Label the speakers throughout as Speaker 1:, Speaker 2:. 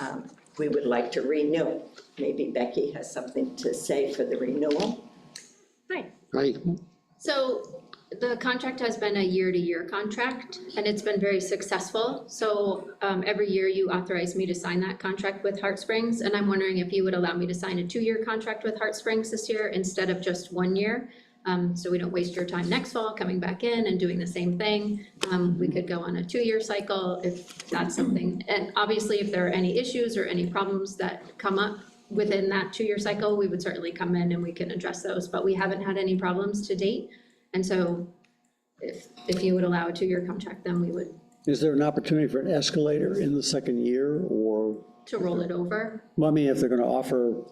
Speaker 1: um, we would like to renew. Maybe Becky has something to say for the renewal.
Speaker 2: Hi,
Speaker 3: Right,
Speaker 2: so the contract has been a year-to-year contract, and it's been very successful. So um, every year you authorize me to sign that contract with Heart Springs, and I'm wondering if you would allow me to sign a two-year contract with Heart Springs this year instead of just one year? Um, So we don't waste your time next fall coming back in and doing the same thing. Um, We could go on a two-year cycle if that's something. And obviously, if there are any issues or any problems that come up, within that two-year cycle, we would certainly come in and we can address those, but we haven't had any problems to date. And so if, if you would allow a two-year contract, then we would
Speaker 3: is there an opportunity for an escalator in the second year, or,
Speaker 2: to roll it over.
Speaker 3: I mean, if they're gonna offer,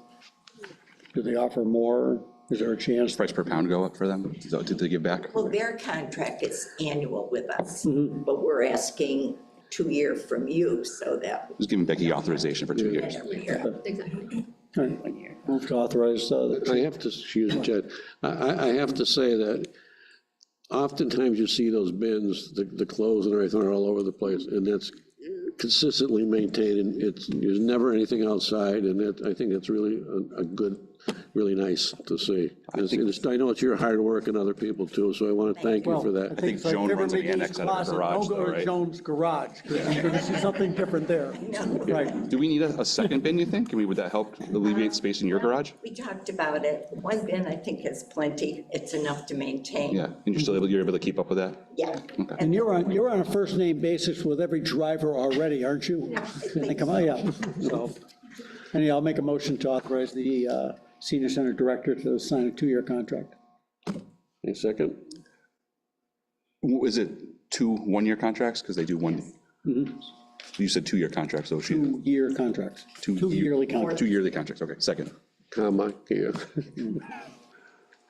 Speaker 3: do they offer more? Is there a chance?
Speaker 4: price per pound go up for them? Is that- Did they give back?
Speaker 1: Well, their contract is annual with us, but we're asking two-year from you so that
Speaker 4: Just giving Becky authorization for two years.
Speaker 1: every year.
Speaker 2: Exactly.
Speaker 3: Move to authorize, uh,
Speaker 5: I have to, excuse me, Jed, I, I, I have to say that oftentimes you see those bins, the, the clothes and everything are all over the place, and that's consistently maintained, and it's, there's never anything outside, and it, I think it's really a, a good, really nice to see. It's- it's- I know it's your hard work and other people too, so I want to thank you for that.
Speaker 4: think
Speaker 6: It's like
Speaker 4: Joan
Speaker 6: never
Speaker 4: runs an
Speaker 6: Mickey's
Speaker 4: annex out of her
Speaker 6: closet, don't
Speaker 4: garage,
Speaker 6: go
Speaker 4: though,
Speaker 6: to
Speaker 4: right?
Speaker 6: Joan's garage, because you're gonna see something different there. Right.
Speaker 4: Do we need a, a second bin, you think? Can we, would that help alleviate space in your garage?
Speaker 1: We talked about it. One bin, I think, is plenty. It's enough to maintain.
Speaker 4: Yeah, and you're still able, you're able to keep up with that?
Speaker 1: Yeah.
Speaker 3: and you're on, you're on a first-name basis with every driver already, aren't you? They come, oh, yeah, so, anyway, I'll make a motion to authorize the uh, senior center director to sign a two-year contract.
Speaker 5: Any second?
Speaker 4: W- Is it two one-year contracts? Because they do one. You said two-year contracts, so she,
Speaker 3: Two-year contracts,
Speaker 4: Two
Speaker 3: Mm-hmm. two
Speaker 4: year-
Speaker 3: yearly contracts.
Speaker 4: two yearly contracts, okay, second.
Speaker 5: Comma, yeah.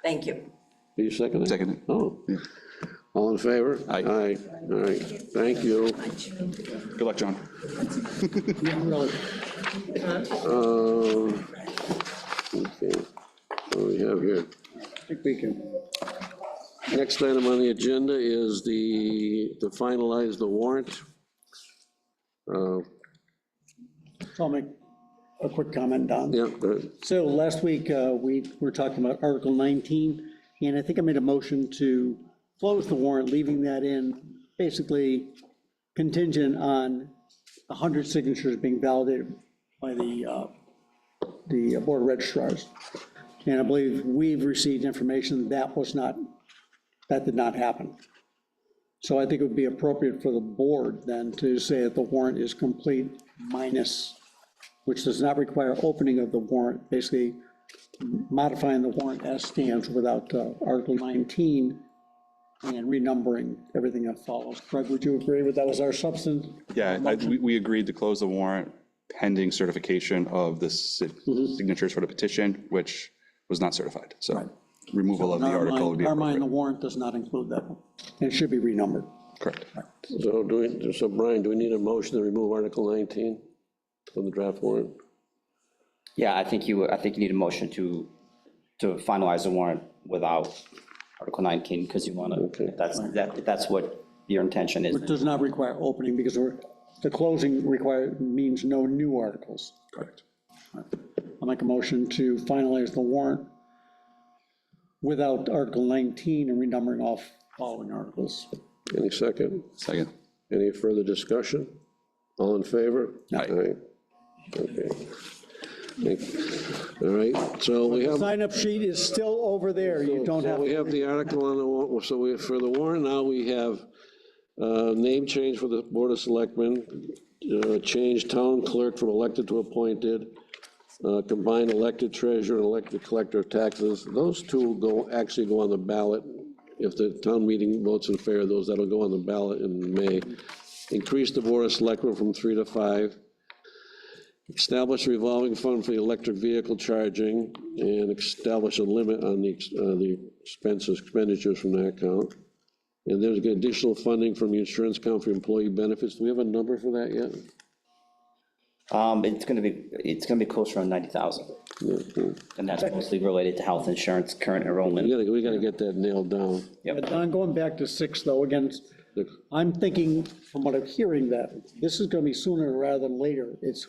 Speaker 1: Thank you.
Speaker 5: Are you seconding?
Speaker 4: Seconding.
Speaker 5: Oh. All in favor?
Speaker 4: Aye.
Speaker 5: Aye, all right, thank you.
Speaker 4: Good luck, John.
Speaker 3: Really.
Speaker 5: Um, Okay, what do we have here?
Speaker 3: I think we can.
Speaker 5: Next item on the agenda is the, to finalize the warrant. Uh,
Speaker 3: I'll make a quick comment, Don.
Speaker 5: Yeah, go ahead.
Speaker 3: So last week, uh, we were talking about Article 19, and I think I made a motion to close the warrant, leaving that in, basically contingent on 100 signatures being validated by the, uh, the board of registrars. And I believe we've received information that was not, that did not happen. So I think it would be appropriate for the board then to say that the warrant is complete minus which does not require opening of the warrant, basically modifying the warrant as stands without uh, Article 19 and renumbering everything that follows. Greg, would you agree with that was our substance?
Speaker 4: Yeah, I- we, we agreed to close the warrant pending certification of the si-
Speaker 3: Mm-hmm.
Speaker 4: signatures for the petition, which was not certified, so removal of the
Speaker 3: In our
Speaker 4: article
Speaker 3: mind-
Speaker 4: would be
Speaker 3: Our mind, the
Speaker 4: appropriate.
Speaker 3: warrant does not include that, one, and it should be renumbered.
Speaker 4: Correct.
Speaker 5: So do we, so Brian, do we need a motion to remove Article 19 from the draft warrant?
Speaker 7: Yeah, I think you, I think you need a motion to, to finalize the warrant without Article 19, because you want
Speaker 5: Okay.
Speaker 7: to, that's, that, that's what your intention is.
Speaker 3: It does not require opening because we're, the closing require, means no new articles.
Speaker 4: Correct.
Speaker 3: I'll make a motion to finalize the warrant without Article 19 and renumbering off following articles.
Speaker 5: Any second?
Speaker 4: Second.
Speaker 5: Any further discussion? All in favor?
Speaker 4: Aye.
Speaker 5: Okay. Thank- All right, so we have.
Speaker 3: Sign-up sheet is still over there, you don't
Speaker 5: So
Speaker 3: have,
Speaker 5: we have the article on the, wa- so we, for the warrant, now we have uh, name change for the Board of Selectmen, uh, change town clerk from elected to appointed, uh, combine elected treasurer and elected collector of taxes. Those two go, actually go on the ballot. If the town meeting votes in favor of those, that'll go on the ballot in May. Increase the Board of Selectmen from three to five. Establish a revolving fund for the electric vehicle charging and establish a limit on the, ex- uh, the expenses, expenditures from that account. And there's additional funding from the insurance account for employee benefits. Do we have a number for that yet?
Speaker 7: Um, It's going to be, it's going to be closer on 90,000, and that's mostly related to health insurance, current
Speaker 5: We
Speaker 7: enrollment.
Speaker 5: gotta, we gotta get that nailed down.
Speaker 3: but Don, going back to six though, again,
Speaker 5: The-
Speaker 3: I'm thinking, from what I'm hearing, that this is gonna be sooner rather than later. It's